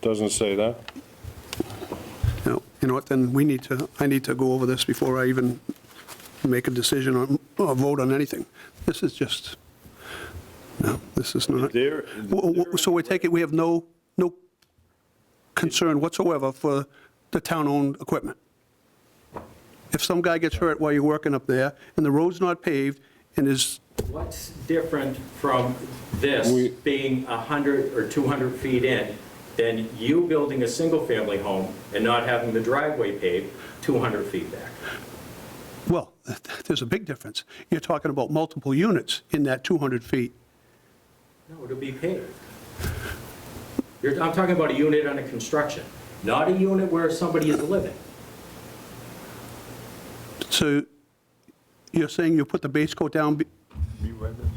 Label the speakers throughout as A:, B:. A: Doesn't say that.
B: No, you know what, then we need to, I need to go over this before I even make a decision or, or vote on anything. This is just, no, this is not.
A: There-
B: W- w- So we take it, we have no, no concern whatsoever for the town-owned equipment? If some guy gets hurt while you're working up there, and the road's not paved, and is,
C: What's different from
A: We-
C: this being 100 or 200 feet in than you building a single-family home and not having the driveway paved 200 feet back?
B: well, there's a big difference. You're talking about multiple units in that 200 feet.
C: No, it'll be paved. You're, I'm talking about a unit under construction, not a unit where somebody is living.
B: So you're saying you put the base coat down be-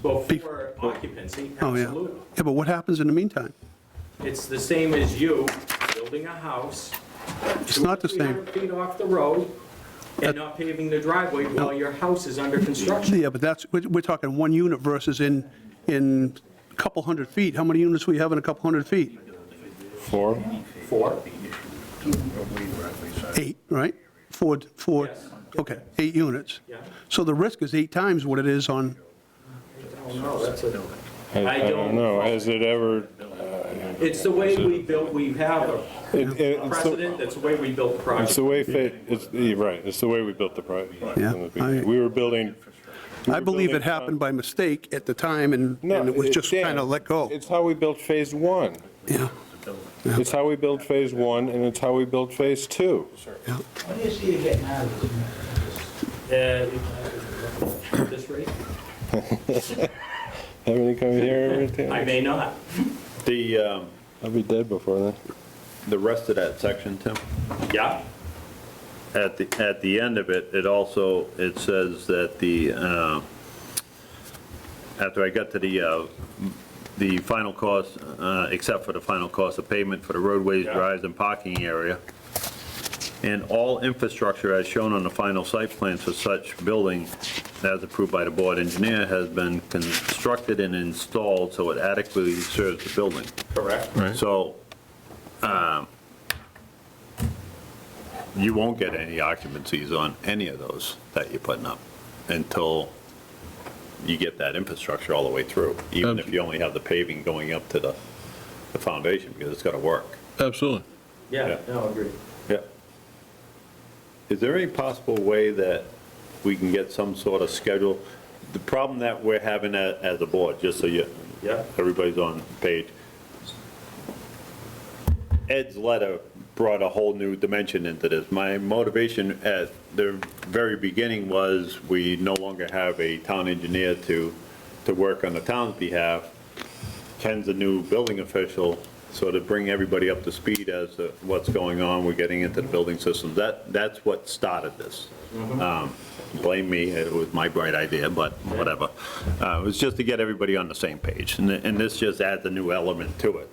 C: Well, for occupancy,
B: Oh, yeah.
C: absolutely.
B: Yeah, but what happens in the meantime?
C: It's the same as you building a house.
B: It's not the same.
C: 200 feet off the road and not paving the driveway while your house is under construction.
B: Yeah, but that's, we're we're talking one unit versus in, in a couple hundred feet. How many units we have in a couple hundred feet?
A: Four?
C: Four,
B: Eight, right? Four, four,
C: Yes.
B: okay, eight units.
C: yeah.
B: So the risk is eight times what it is on,
C: Oh, no, that's a,
A: I
C: I
A: I don't
C: don't-
A: know, has it ever,
C: it's the way we built, we have a
A: it- it- it's the-
C: precedent, that's the way we built the
A: it's
C: project.
A: the way, fa- it's, you're right, it's the way we built the project.
B: Yeah, I-
A: We were building.
B: I believe it happened by mistake at the time and
A: No,
B: and it was just
A: Dan,
B: kind of let go.
A: It's how we built phase one.
B: Yeah,
A: It's how we built phase one, and it's how we built phase two.
B: yeah.
D: What do you see you getting out of this?
C: Uh, This rate?
A: Have any come here every
C: I
A: time?
C: may not.
E: The, um,
A: I'll be dead before then.
E: the rest of that section, Tim,
C: Yeah,
E: at the, at the end of it, it also, it says that the, uh, after I got to the, uh, the final cost, uh, except for the final cost of payment for the roadways,
C: Yeah.
E: drives, and parking area, and all infrastructure as shown on the final site plans for such building as approved by the board engineer has been constructed and installed so it adequately serves the building.
C: correct.
E: So, um, you won't get any occupancies on any of those that you're putting up until you get that infrastructure all the way through, even if you only have the paving going up to the, the foundation, because it's gonna work.
F: Absolutely.
C: Yeah,
E: Yeah.
C: no, agreed.
E: Yeah. Is there any possible way that we can get some sort of schedule? The problem that we're having a- as a board, just so you,
C: Yeah.
E: everybody's on page, Ed's letter brought a whole new dimension into this. My motivation at the very beginning was, we no longer have a town engineer to, to work on the town's behalf. Ken's a new building official, so to bring everybody up to speed as to what's going on, we're getting into the building system, that, that's what started this. Um, Blame me, it was my bright idea, but whatever. Uh, It was just to get everybody on the same page, and and this just adds a new element to it.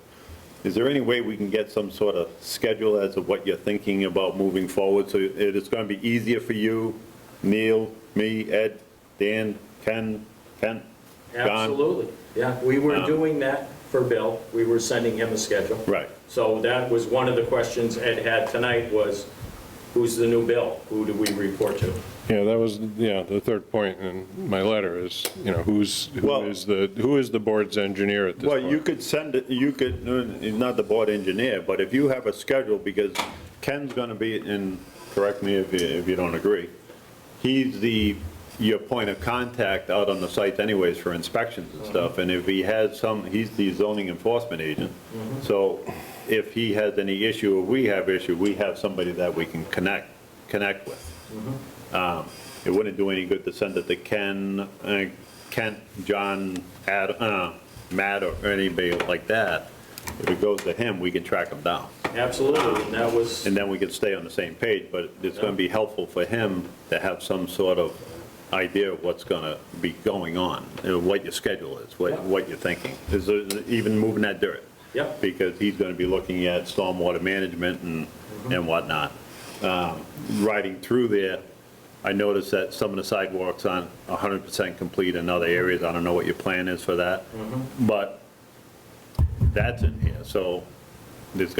E: Is there any way we can get some sort of schedule as to what you're thinking about moving forward? So it is going to be easier for you, Neil, me, Ed, Dan, Ken, Kent, John?
C: Absolutely, yeah. We were
E: Um,
C: doing that for Bill. We were sending him a schedule.
E: Right.
C: So that was one of the questions Ed had tonight was, who's the new Bill? Who do we report to?
A: Yeah, that was, yeah, the third point in my letter is, you know, who's, who
E: Well-
A: is the, who is the board's engineer at this
E: Well,
A: point?
E: you could send it, you could, no, not the board engineer, but if you have a schedule, because Ken's gonna be in, correct me if you, if you don't agree, he's the, your point of contact out on the site anyways for inspections and stuff, and if he has some, he's the zoning enforcement agent, so if he has any issue or we have issue, we have somebody that we can connect, connect with. Um, It wouldn't do any good to send it to Ken, uh, Kent, John, Ad, uh, Matt, or anybody like that. If it goes to him, we can track him down,
C: Absolutely, and that was,
E: and then we can stay on the same page, but it's gonna be helpful for him to have some sort of idea of what's gonna be going on, you know, what your schedule is, what, what you're thinking, is there- even moving that dirt.
C: Yep.
E: Because he's gonna be looking at stormwater management and, and whatnot Um, riding through there, I noticed that some of the sidewalks aren't 100% complete in other areas. I don't know what your plan is for that, but that's in here, so there's got